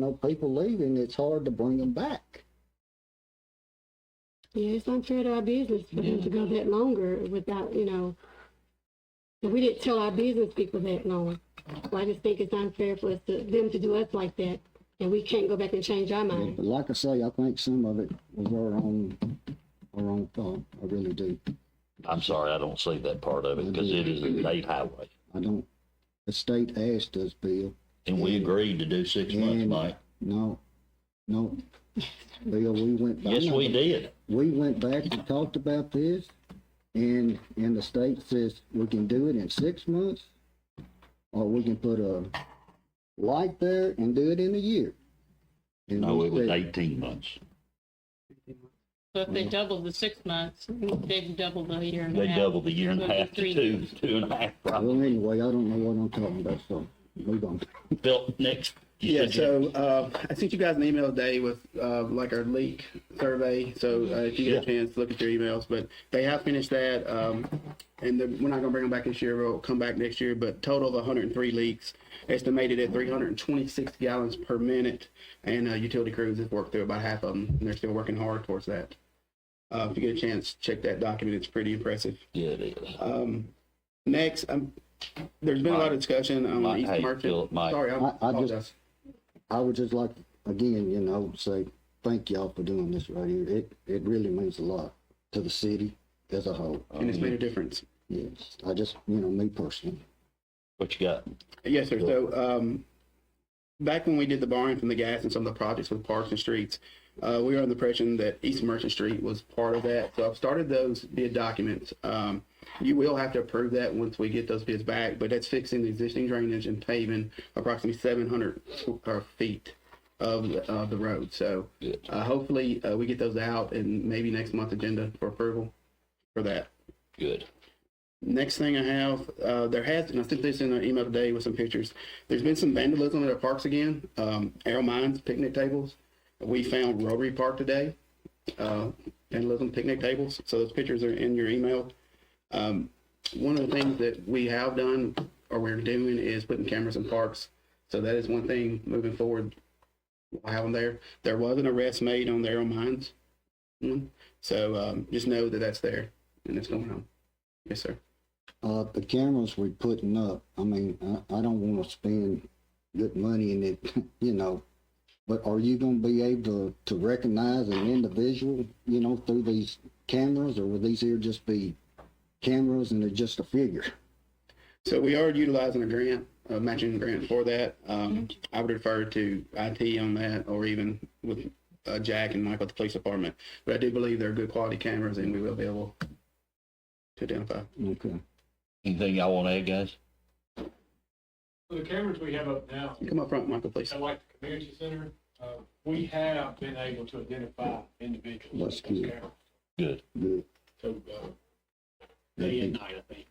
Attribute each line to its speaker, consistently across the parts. Speaker 1: know, people leaving, it's hard to bring them back.
Speaker 2: Yeah, it's unfair to our business for them to go that longer without, you know, if we didn't tell our business people that long. So I just think it's unfair for us to, them to do us like that, and we can't go back and change our mind.
Speaker 1: But like I say, I think some of it was our own, our own fault. I really do.
Speaker 3: I'm sorry, I don't see that part of it because it is
Speaker 4: Mm-hmm.
Speaker 3: a state highway.
Speaker 1: I don't, the state asked us, Bill.
Speaker 3: And we agreed to do six months,
Speaker 4: Mm-hmm.
Speaker 1: and-
Speaker 3: Mike.
Speaker 1: No, no. Bill, we went. I
Speaker 3: Yes,
Speaker 1: know.
Speaker 3: we did.
Speaker 1: we went back and talked about this, and, and the state says we can do it in six months, or we can put a light there and do it in a year. And
Speaker 3: No,
Speaker 1: we
Speaker 3: it was
Speaker 1: said,
Speaker 3: eighteen months.
Speaker 5: So if they double the six months, they've doubled the year and a
Speaker 3: They
Speaker 5: half.
Speaker 3: doubled the year and a
Speaker 5: Well,
Speaker 3: half to
Speaker 5: three
Speaker 3: two, two and a half,
Speaker 1: Well,
Speaker 3: probably.
Speaker 1: anyway, I don't know what I'm talking about, so move on.
Speaker 3: Built next. you
Speaker 4: Yeah,
Speaker 3: said
Speaker 4: so uh, I sent you guys an email today with uh, like our leak survey. So uh, if you get a chance, look at your emails. But they have finished that, um, and they're- we're not going to bring them back this year. We'll come back next year. But total of 103 leaks, estimated at 326 gallons per minute, and uh, utility crews have worked through about half of them, and they're still working hard towards that. Uh, if you get a chance, check that document. It's pretty impressive.
Speaker 3: Yeah, it is.
Speaker 4: Um, next, um, there's been a lot of discussion on
Speaker 3: Mike,
Speaker 4: East
Speaker 3: hey,
Speaker 4: Merchant.
Speaker 3: Philip, Mike.
Speaker 4: Sorry, I,
Speaker 1: I- I just-
Speaker 4: apologize.
Speaker 1: I would just like, again, you know, say, thank y'all for doing this right here. It, it really means a lot to the city as a whole.
Speaker 4: and it's made a difference.
Speaker 1: Yes, I just, you know, me personally.
Speaker 3: What you got?
Speaker 4: Yes, sir. So, um, back when we did the borrowing from the gas and some of the projects with parks and streets, uh, we were under the impression that East Merchant Street was part of that. So I've started those bid documents. Um, you will have to approve that once we get those bids back, but that's fixing the existing drainage and paving approximately seven hundred uh, feet of, of the road. So,
Speaker 3: Good.
Speaker 4: uh, hopefully, uh, we get those out and maybe next month's agenda for approval for that.
Speaker 3: Good.
Speaker 4: Next thing I have, uh, there has, and I sent this in an email today with some pictures. There's been some vandalism at our parks again. Um, Arrow Mines picnic tables. We found Rotary Park today. Uh, vandalism picnic tables. So those pictures are in your email. Um, one of the things that we have done or we're doing is putting cameras in parks. So that is one thing moving forward. We'll have them there. There was an arrest made on the Arrow Mines. one. So um, just know that that's there and it's going on. Yes, sir.
Speaker 1: Uh, the cameras we're putting up, I mean, I, I don't wanna spend good money in it, you know. But are you gonna be able to recognize an individual, you know, through these cameras, or will these here just be cameras and they're just a figure?
Speaker 4: So we are utilizing a grant, a matching grant for that. Um, I would refer to IT on that or even with uh, Jack and Mike at the police department. But I do believe they're good quality cameras and we will be able to identify.
Speaker 1: Okay.
Speaker 3: Anything y'all want to add, guys?
Speaker 6: So The cameras we have up now,
Speaker 4: Come up front, Michael, please.
Speaker 6: at like the community center, uh, we have been able to identify individuals. with
Speaker 1: That's
Speaker 6: those
Speaker 1: good.
Speaker 6: cameras.
Speaker 3: Good.
Speaker 1: Good.
Speaker 6: So, uh, day and night, I think.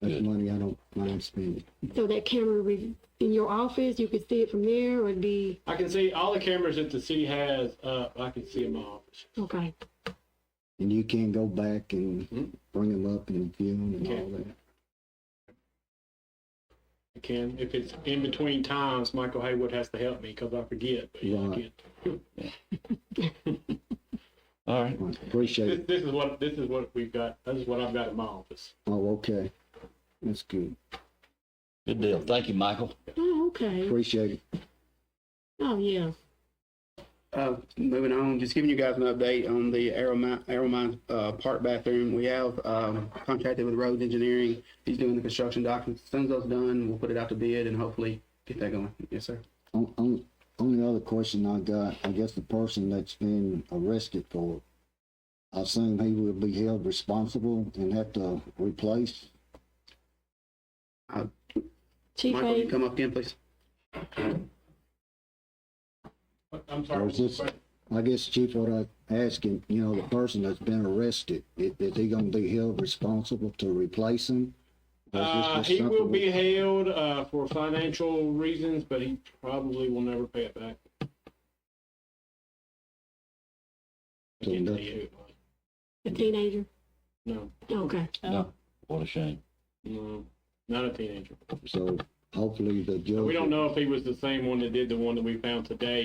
Speaker 1: That's
Speaker 3: Good.
Speaker 1: money I don't mind spending.
Speaker 2: So that camera re- in your office, you could see it from there, or it'd be,
Speaker 6: I can see all the cameras that the city has, uh, I can see them all.
Speaker 2: okay.
Speaker 1: And you can go back and
Speaker 6: Mhm.
Speaker 1: bring them up and view them and
Speaker 6: Okay.
Speaker 1: all that.
Speaker 6: I can, if it's in between times, Michael Haywood has to help me because I forget. but yeah, I
Speaker 1: Right.
Speaker 6: can.
Speaker 3: All right.
Speaker 1: Well, Appreciate
Speaker 6: This,
Speaker 1: it.
Speaker 6: this is what, this is what we've got, this is what I've got in my office.
Speaker 1: Oh, okay. That's good.
Speaker 3: Good deal. Thank you, Michael.
Speaker 2: Oh, okay.
Speaker 1: Appreciate it.
Speaker 2: Oh, yeah.
Speaker 4: Uh, moving on, just giving you guys an update on the Arrow Mi- Arrow Mines, uh, park bathroom. We have, um, contracted with Roads Engineering. He's doing the construction documents. As soon as those done, we'll put it out to bid and hopefully get that going. Yes, sir.
Speaker 1: On, on, only other question I got, I guess the person that's been arrested for, it, I assume he will be held responsible and have to replace.
Speaker 2: Chief
Speaker 4: Michael, you
Speaker 2: A,
Speaker 4: come up again, please.
Speaker 6: I'm sorry.
Speaker 1: Or is this- I guess Chief, what I asking, you know, the person that's been arrested, is, is he gonna be held responsible to replace him? Or is this
Speaker 6: Uh,
Speaker 1: just
Speaker 6: he will
Speaker 1: something we-
Speaker 6: be held, uh, for financial reasons, but he probably will never pay it back. I
Speaker 1: So
Speaker 6: can't tell
Speaker 1: nothing.
Speaker 6: you.
Speaker 2: a teenager?
Speaker 6: No,
Speaker 2: Okay.
Speaker 5: Oh.
Speaker 3: No. What a shame.
Speaker 6: no, not a teenager.
Speaker 1: So hopefully the judge.
Speaker 6: We don't know if he was the same one that did the one that we found today